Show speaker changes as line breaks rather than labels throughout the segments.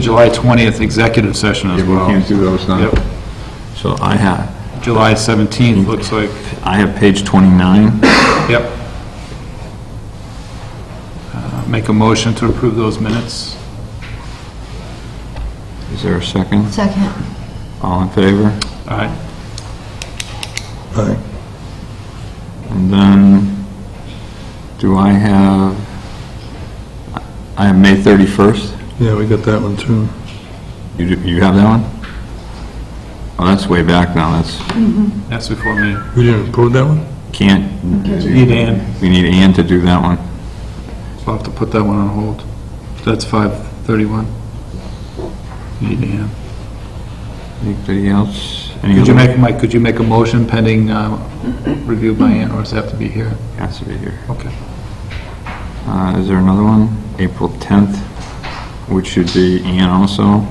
July 20th executive session as
Yeah, we
well.
can't do those now.
Yep.
So I have,
July 17th, looks like,
I have page 29.
yep. Uh, Make a motion to approve those minutes.
Is there a second?
Second.
All in favor?
All right,
And then, do I have, I have May 31st?
Yeah, we got that one too.
You, do- you have that one? Oh, that's way back now, that's,
that's before me.
We didn't approve that one?
can't,
Need Ann,
we need Ann to do that one.
we'll have to put that one on hold. That's 5:31. Need Ann.
Anybody else? Any
Could you
other-
make, Mike, could you make a motion pending um, review by Ann, or does it have to be here?
Has to be here.
Okay.
Uh, is there another one? April 10th, which should be Ann also.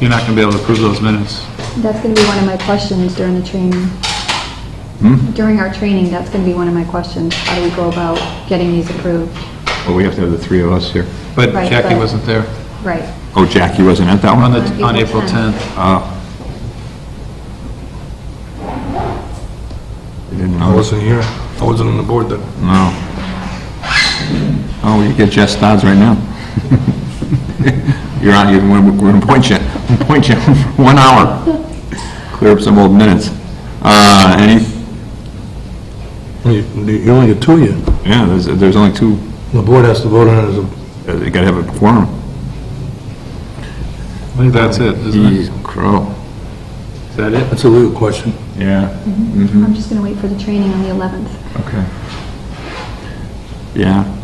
You're not going to be able to approve those minutes.
That's going to be one of my questions during the training. During our training, that's going to be one of my questions. How do we go about getting these approved?
Well, Oh, we have to have the three of us here.
But
Right,
Jackie
but-
wasn't there
Right.
Oh, Jackie wasn't at that
on
one?
the,
On
on April
April
10th.
Oh. You didn't
I
know?
wasn't here. I wasn't on the board then.
No. Oh, you get Jeff Stodds right now. You're on, you're, we're we're gonna point you, point you, one hour. Clear up some old minutes. Uh, any,
You you only get two yet.
yeah, there's, there's only two,
The board has to vote on it as a,
uh, you gotta have a quorum.
I think that's it, isn't it?
Jeez, Crow.
Is that it?
that's a legal question.
Yeah.
I'm just going to wait for the training on the 11th.
Okay. Yeah.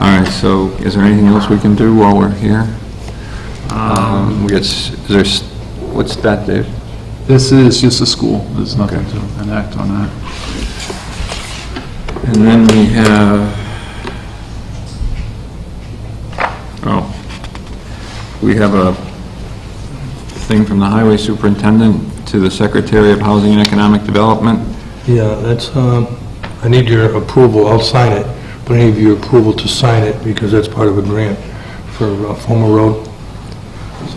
All right, so is there anything else we can do while we're here? Um, we got, s- is there, s- what's that, Dave?
This is just a school, there's nothing to enact on that.
And then we have, oh, we have a thing from the highway superintendent to the Secretary of Housing and Economic Development.
Yeah, that's, um, I need your approval, I'll sign it, but I need your approval to sign it because that's part of a grant for uh, Fulmer Road.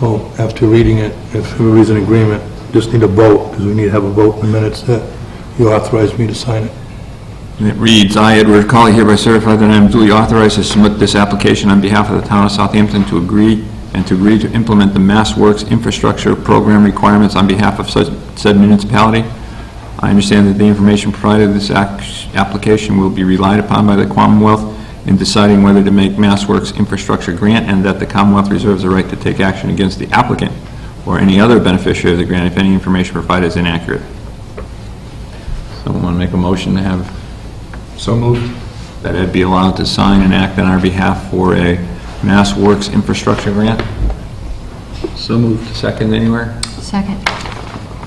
So after reading it, if everybody's in agreement, just need a vote, because we need to have a vote in the minutes that you authorize me to sign it.
And it reads, "I, Edward Colley, hereby certify that I am duly authorized to submit this application on behalf of the town of Southampton to agree and to agree to implement the Mass Works Infrastructure Program requirements on behalf of such- said municipality. I understand that the information provided in this ac- application will be relied upon by the Commonwealth in deciding whether to make Mass Works Infrastructure Grant, and that the Commonwealth reserves the right to take action against the applicant or any other beneficiary of the grant if any information provided is inaccurate." Someone want to make a motion to have
So moved.
that Ed be allowed to sign and act on our behalf for a Mass Works infrastructure grant? So moved. Second anywhere?
Second.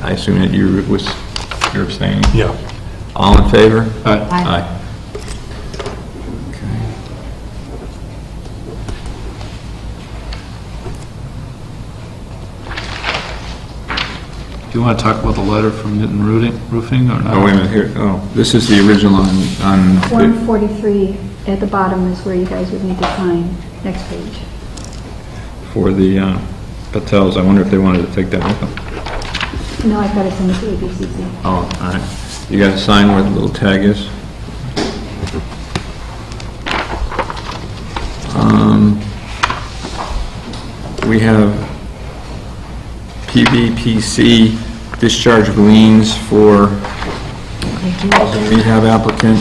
I assume that you was, you're abstaining.
Yeah.
All in favor?
All right,
Aye.
do you want to talk about the letter from Newton Rooting- Roofing or not?
Oh, wait a minute, here, oh, this is the original on, on,
143 at the bottom is where you guys would need to sign. Next page.
for the uh, Patels, I wonder if they wanted to take that with them.
No, I've got to send it to ABCC.
Oh, all right. You gotta sign where the little tag is. Um, We have PVPC discharge of liens for the rehab applicant.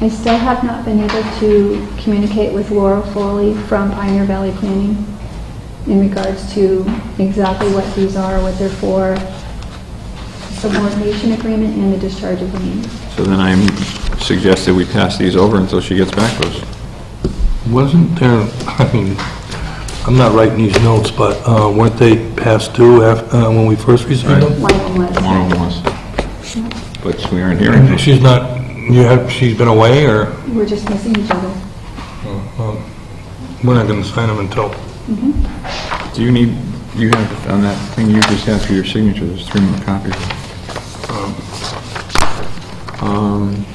I still have not been able to communicate with Laura Foley from Pioneer Valley Planning in regards to exactly what these are, what they're for, subordination agreement and the discharge of liens.
So then I suggest that we pass these over until she gets back to us.
Wasn't there, I mean, I'm not writing these notes, but uh, weren't they passed due af- uh, when we first received them?
One of them was,
One of them was. But we aren't hearing this.
She's not, you have, she's been away, or
we're just missing each other.
we're not going to sign them until...
Do you need, you have, on that thing you just had for your signature, there's three more copies. Um,